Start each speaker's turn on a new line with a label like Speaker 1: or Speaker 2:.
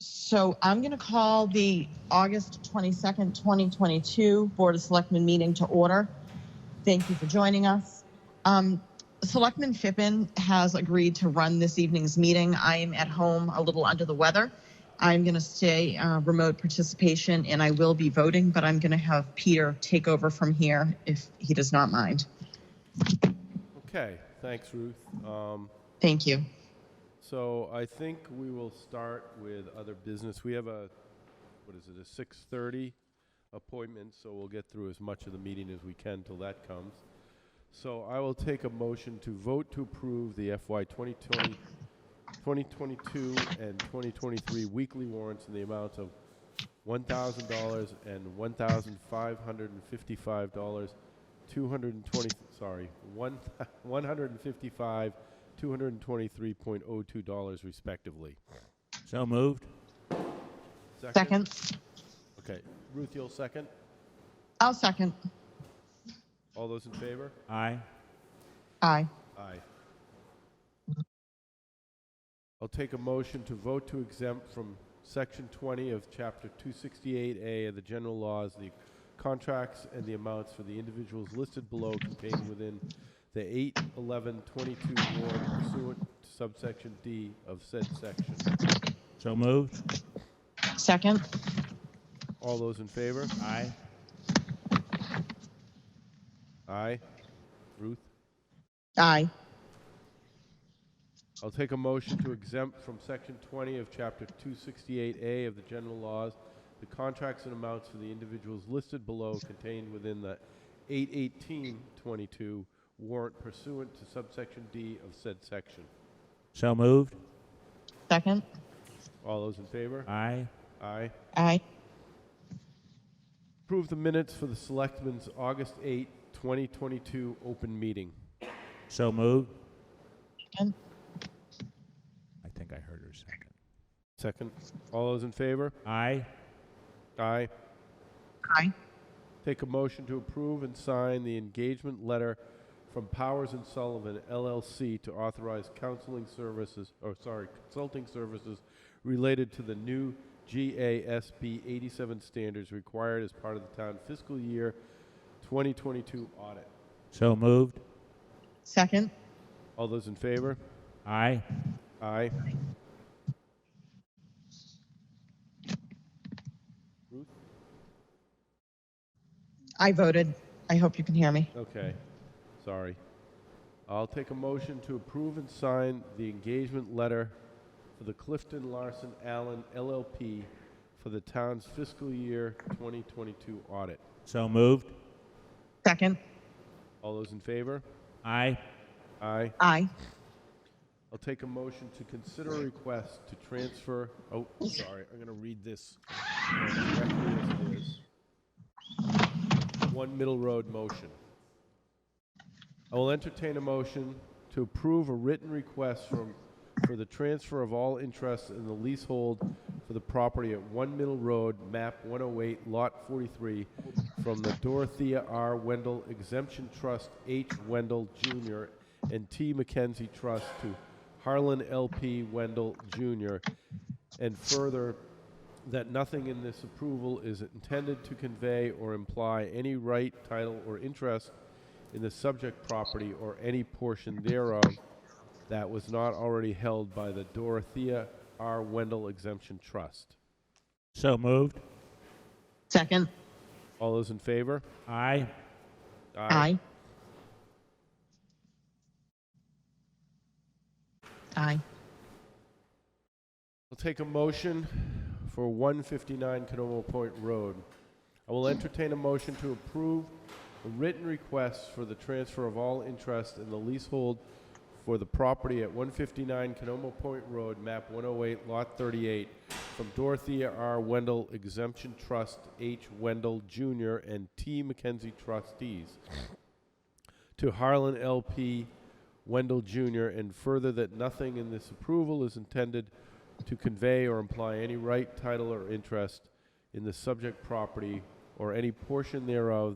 Speaker 1: So I'm going to call the August 22nd, 2022 Board of Selectmen meeting to order. Thank you for joining us. Um, Selectman Fippen has agreed to run this evening's meeting. I am at home a little under the weather. I'm going to stay uh, remote participation and I will be voting, but I'm going to have Peter take over from here if he does not mind.
Speaker 2: Okay, thanks, Ruth. Um,
Speaker 1: Thank you.
Speaker 2: So I think we will start with other business. We have a, what is it, a 6:30 appointment, so we'll get through as much of the meeting as we can till that comes. So I will take a motion to vote to approve the FY 2020 2022 and 2023 weekly warrants in the amount of $1,000 and $1,555, 220, sorry, one $155, $223.02 respectively.
Speaker 3: So moved.
Speaker 1: Second?
Speaker 2: Okay. Ruth, you'll second?
Speaker 1: I'll second.
Speaker 2: All those in favor?
Speaker 3: Aye.
Speaker 1: Aye.
Speaker 2: Aye. I'll take a motion to vote to exempt from Section 20 of Chapter 268A of the general laws, the contracts and the amounts for the individuals listed below contained within the 8/11/22 warrant pursuant to subsection D of said section.
Speaker 3: So moved.
Speaker 1: Second?
Speaker 2: All those in favor?
Speaker 3: Aye.
Speaker 2: Aye. Ruth?
Speaker 1: Aye.
Speaker 2: I'll take a motion to exempt from Section 20 of Chapter 268A of the general laws the contracts and amounts for the individuals listed below contained within the 81822 warrant pursuant to subsection D of said section.
Speaker 3: So moved.
Speaker 1: Second?
Speaker 2: All those in favor?
Speaker 3: Aye.
Speaker 2: Aye.
Speaker 1: Aye.
Speaker 2: Approve the minutes for the Selectmen's August 8, 2022 open meeting.
Speaker 3: So moved.
Speaker 1: Second?
Speaker 3: I think I heard her second.
Speaker 2: Second. All those in favor?
Speaker 3: Aye.
Speaker 2: Aye.
Speaker 1: Aye.
Speaker 2: Take a motion to approve and sign the engagement letter from Powers and Sullivan LLC to authorize counseling services, or sorry, consulting services related to the new GASB 87 standards required as part of the town fiscal year 2022 audit.
Speaker 3: So moved.
Speaker 1: Second?
Speaker 2: All those in favor?
Speaker 3: Aye.
Speaker 2: Aye.
Speaker 1: I voted. I hope you can hear me.
Speaker 2: Okay, sorry. I'll take a motion to approve and sign the engagement letter for the Clifton Larson Allen LLP for the town's fiscal year 2022 audit.
Speaker 3: So moved.
Speaker 1: Second?
Speaker 2: All those in favor?
Speaker 3: Aye.
Speaker 2: Aye.
Speaker 1: Aye.
Speaker 2: I'll take a motion to consider a request to transfer, oh, sorry, I'm going to read this. directly as it is. One Middle Road motion. I will entertain a motion to approve a written request from, for the transfer of all interests in the leasehold for the property at One Middle Road, map 108, lot 43, from the Dorothea R. Wendell Exemption Trust H. Wendell Jr. and T. Mackenzie Trust to Harlan L.P. Wendell Jr. And further, that nothing in this approval is intended to convey or imply any right, title, or interest in the subject property or any portion thereof that was not already held by the Dorothea R. Wendell Exemption Trust.
Speaker 3: So moved.
Speaker 1: Second?
Speaker 2: All those in favor?
Speaker 3: Aye.
Speaker 1: Aye. Aye.
Speaker 2: I'll take a motion for 159 Canomo Point Road. I will entertain a motion to approve a written request for the transfer of all interest in the leasehold for the property at 159 Canomo Point Road, map 108, lot 38, from Dorothea R. Wendell Exemption Trust H. Wendell Jr. and T. McKenzie trustees to Harlan LP Wendell Jr., and further that nothing in this approval is intended to convey or imply any right, title, or interest in the subject property or any portion thereof